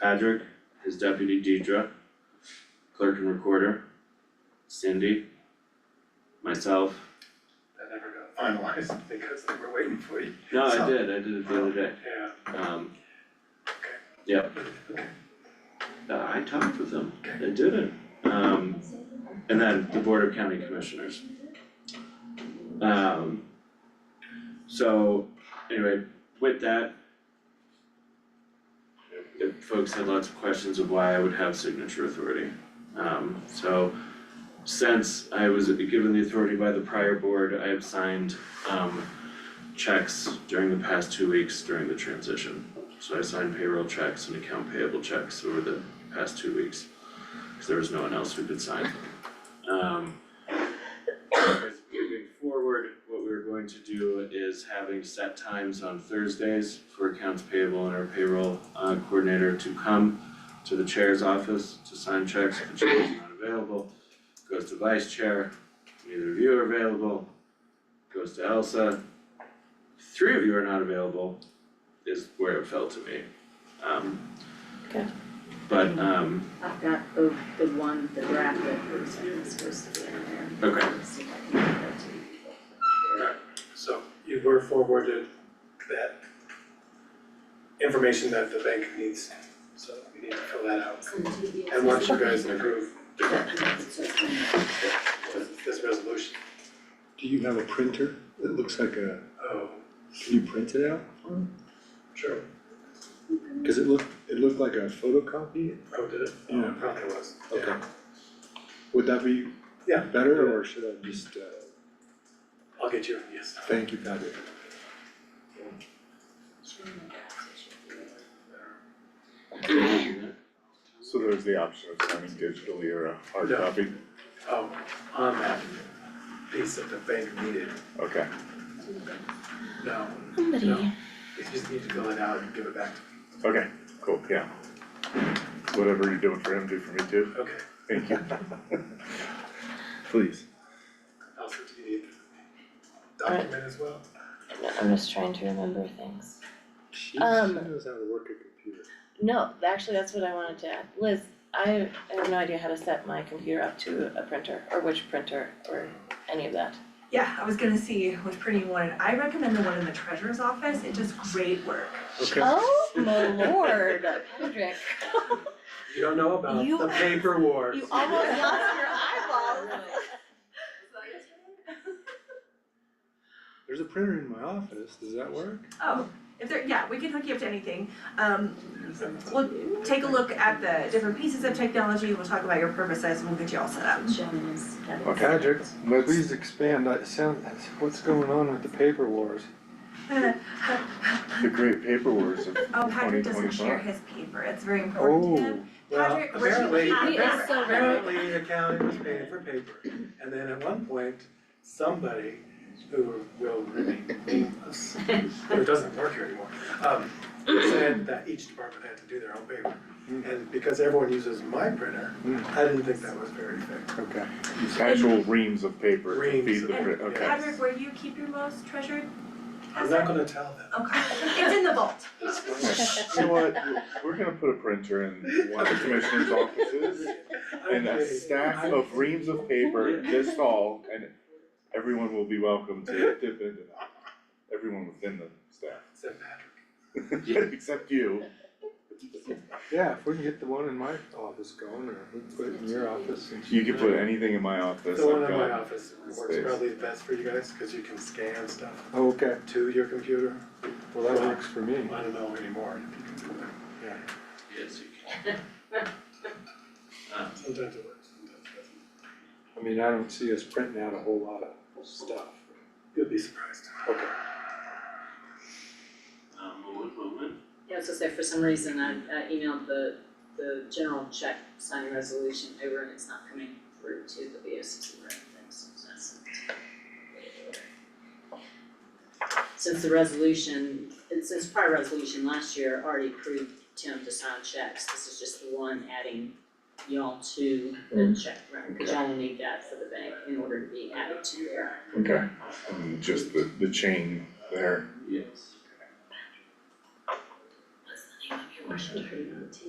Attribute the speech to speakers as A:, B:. A: Patrick, his deputy Deidre, clerk and recorder, Cindy, myself.
B: That never got finalized because they were waiting for you,
A: No, I
B: So-
A: did, I did it the other day,
B: yeah,
A: um,
B: okay.
A: Yep.
B: Okay,
A: Uh, I talked with them, they did it, um, and then the Board of County Commissioners. Um, so, anyway, with that. If folks had lots of questions of why I would have signature authority, um, so. Since I was given the authority by the prior board, I have signed, um, checks during the past two weeks during the transition. So I signed payroll checks and account payable checks over the past two weeks, cause there was no one else who could sign. Um. as Moving forward, what we're going to do is having set times on Thursdays for accounts payable and our payroll uh, coordinator to come to the chair's office to sign checks, if the chair is not available. Goes to vice chair, neither of you are available, goes to Elsa. Three of you are not available, is where it fell to me. Um.
C: Okay.
A: But um,
C: I've got the, the one, the draft that was supposed to be in there.
A: okay,
C: Let's see if I can get that to you.
B: so you were forwarded that information that the bank needs, so we need to fill that out. And once you guys approve this, this resolution,
D: Do you have a printer that looks like a,
B: oh,
D: can you print it out?
B: sure,
D: Cause it looked, it looked like a photocopy,
B: oh, did it? Oh,
D: Yeah.
B: Probably was, yeah.
D: okay. Would that be
B: Yeah.
D: better, or should I just, uh,
B: I'll get you, yes.
D: thank you, Patrick?
E: So there's the option of signing digitally or a hard
B: Yeah.
E: copy?
B: Oh, on that piece that the bank needed,
E: Okay,
B: no, no,
F: Somebody,
B: you just need to fill it out and give it back to
E: okay, cool, yeah. Whatever you're doing for him, do for me too,
B: Okay,
E: thank you. Please.
B: Elsa, do you need the document as well?
F: I'm just trying to remember things.
D: She, she
F: Um,
D: knows how to work a computer.
F: No, actually, that's what I wanted to add. Liz, I have no idea how to set my computer up to a printer, or which printer, or any of that.
G: Yeah, I was gonna see which printer you wanted. I recommend the one in the treasurer's office. It does great work.
D: Okay,
F: Oh, my lord, Patrick,
B: You don't know about
F: You-
B: the paper wars.
F: you almost lost your eyeball.
D: there's a printer in my office, does that work?
G: Oh, if there, yeah, we can hook you up to anything. Um, we'll take a look at the different pieces of technology. We'll talk about your purposes and we'll get you all set up.
C: Jen is, that is-
H: Patrick, please expand, I sound, what's going on with the paper wars?
E: The great paper wars of
G: Oh,
E: twenty
G: Patrick doesn't share
E: twenty-five.
G: his paper. It's very important
D: Oh,
G: to him.
B: Well,
G: Patrick, what you
B: apparently,
G: have-
C: He is so
B: apparently the county was paying for paper, and then at one point, somebody who will remain nameless, who doesn't work here anymore, um, said that each department had to do their own paper. And because everyone uses my printer, I didn't think that was very fair.
D: okay.
E: Actual reams of paper to
B: Reams
E: feed the,
B: of-
E: pri- okay,
G: Patrick, where you keep your most treasured
B: I'm not
G: asset?
B: gonna tell them.
G: Okay, it's in the vault.
E: you know what, we're gonna put a printer in one of the commissioner's offices and a stack of reams of paper this tall and everyone will be welcome to dip into that. Everyone within the staff.
B: Said Patrick.
E: Except you.
D: Yeah, if we can get the one in my office going, or we can put it in your office and.
E: You can put anything in my office,
B: The one
E: I've
B: in my
E: got,
B: office works
E: space.
B: probably the best for you guys, cause you can scan stuff
D: Oh, okay,
B: to your computer.
D: well, that works for me.
B: I don't know anymore if you can do that.
A: yes, you can. Um,
B: Sometimes it works, sometimes it doesn't.
D: I mean, I don't see us printing out a whole lot of stuff.
B: You'll be surprised.
D: Okay.
A: um, moment, moment.
I: Yeah, I was gonna say, for some reason, I, I emailed the, the general check signing resolution over and it's not coming through to the B O C or anything, so that's. Since the resolution, and since prior resolution last year already approved Tim to sign checks, this is just the one adding y'all to the check record, cause y'all will need that for the bank in order to be added to their
E: okay, and just the, the chain there.
A: Yes.
I: What's the name of your Washington?